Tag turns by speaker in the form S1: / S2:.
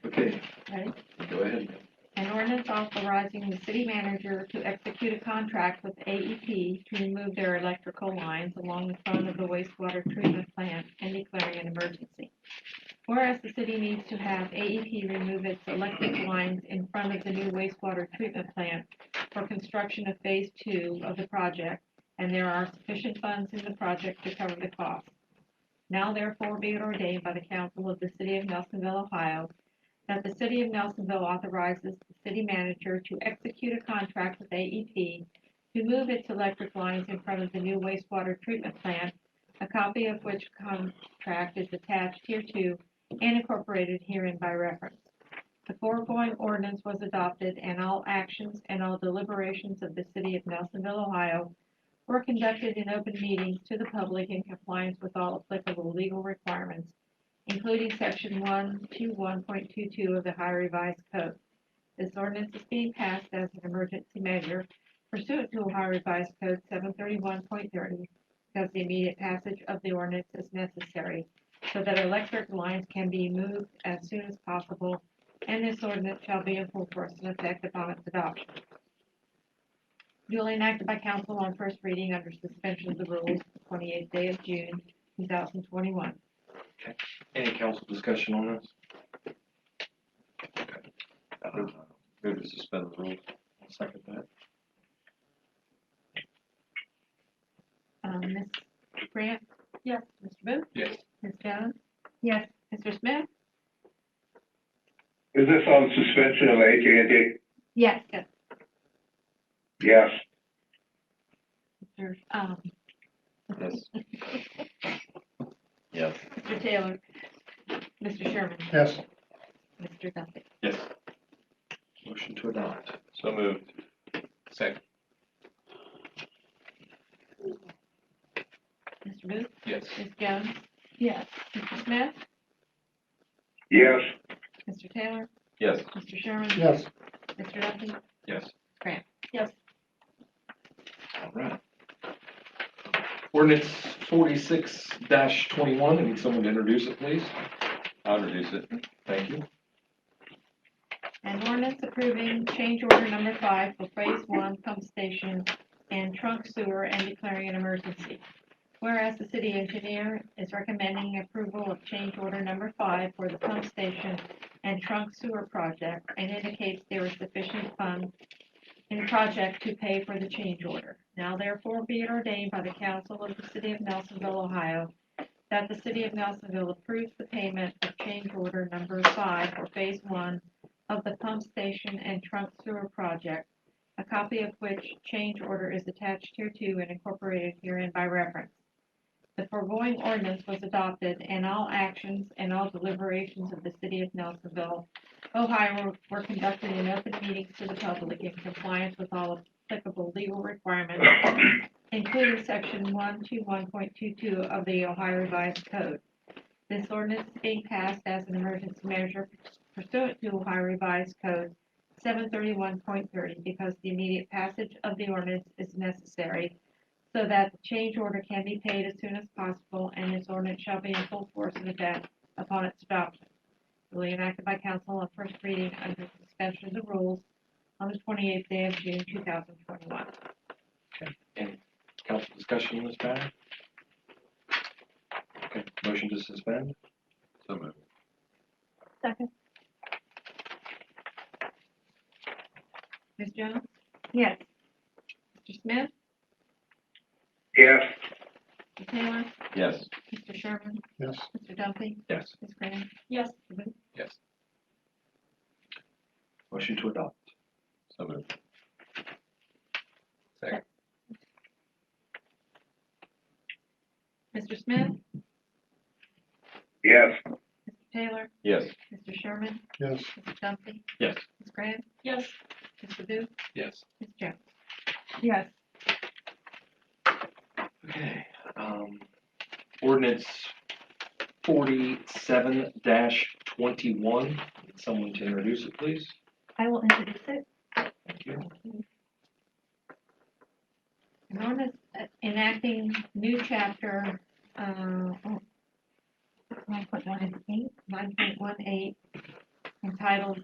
S1: ordinance authorizing the city manager to execute a contract with AEP to remove their electrical lines along the front of the wastewater treatment plant and declaring an emergency. Whereas the city needs to have AEP remove its electric lines in front of the new wastewater treatment plant for construction of phase two of the project, and there are sufficient funds in the project to cover the cost. Now therefore be it ordained by the council of the city of Nelsonville, Ohio, that the city of Nelsonville authorizes the city manager to execute a contract with AEP to move its electric lines in front of the new wastewater treatment plant, a copy of which contract is attached hereto and incorporated herein by reference. The foregoing ordinance was adopted and all actions and all deliberations of the city of Nelsonville, Ohio were conducted in open meetings to the public in compliance with all applicable legal requirements including section one two one point two two of the High Revised Code. This ordinance is being passed as an emergency measure pursuant to Ohio Revised Code seven thirty-one point thirty, because the immediate passage of the ordinance is necessary so that electric lines can be moved as soon as possible, and this ordinance shall be in full force and effect upon its adoption. Duly enacted by council on first reading under suspension of the rules the twenty-eighth day of June, two thousand twenty-one.
S2: Any council discussion on this? Uh, Move to suspend the rules. Second that.
S1: Um, Ms. Grant? Yes. Mr. Booth?
S2: Yes.
S1: Ms. Jones? Yes. Mr. Smith?
S3: Is this on suspension of AT&T?
S1: Yes. Yes.
S3: Yes.
S1: Mr. Um,
S2: Yes. Yes.
S1: Mr. Taylor? Mr. Sherman?
S3: Yes.
S1: Mr. Duffy?
S2: Yes. Motion to adopt. So moved. Second.
S1: Mr. Booth?
S2: Yes.
S1: Ms. Jones? Yes. Mr. Smith?
S3: Yes.
S1: Mr. Taylor?
S2: Yes.
S1: Mr. Sherman?
S3: Yes.
S1: Mr. Duffy?
S2: Yes.
S1: Grant? Yes.
S2: All right. Ordinance forty-six twenty-one, I need someone to introduce it, please. I'll introduce it. Thank you.
S1: An ordinance approving change order number five for phase one pump station and trunk sewer and declaring an emergency. Whereas the city engineer is recommending approval of change order number five for the pump station and trunk sewer project and indicates there is sufficient funds in the project to pay for the change order. Now therefore be it ordained by the council of the city of Nelsonville, Ohio, that the city of Nelsonville approves the payment of change order number five for phase one of the pump station and trunk sewer project, a copy of which change order is attached hereto and incorporated herein by reference. The foregoing ordinance was adopted, and all actions and all deliberations of the city of Nelsonville, Ohio were conducted in open meetings to the public in compliance with all applicable legal requirements, including section one two one point two two of the Ohio Revised Code. This ordinance is being passed as an emergency measure pursuant to Ohio Revised Code seven thirty-one point thirty, because the immediate passage of the ordinance is necessary so that the change order can be paid as soon as possible, and this ordinance shall be in full force and effect upon its adoption. duly enacted by council on first reading under suspension of the rules on the twenty-eighth day of June, two thousand twenty-one.
S2: Council discussion on this matter? Okay, motion to suspend? So moved.
S1: Second. Ms. Jones? Yes. Mr. Smith?
S3: Yes.
S1: Mr. Taylor?
S2: Yes.
S1: Mr. Sherman?
S3: Yes.
S1: Mr. Duffy?
S2: Yes.
S1: Ms. Graham? Yes. Mr.
S2: Yes. Motion to adopt? So moved. Second.
S1: Smith?
S3: Yes.
S1: Mr. Taylor?
S2: Yes.
S1: Mr. Sherman?
S3: Yes.
S1: Mr. Duffy?
S2: Yes.
S1: Ms. Graham? Yes. Mr. Booth?
S2: Yes.
S1: Ms. Jones? Yes.
S2: Okay, um, ordinance forty-seven twenty-one, someone to introduce it, please?
S1: I will introduce it.
S2: Thank you.
S1: An ordinance uh, enacting new chapter, uh, nine point one eight, nine point one eight, entitled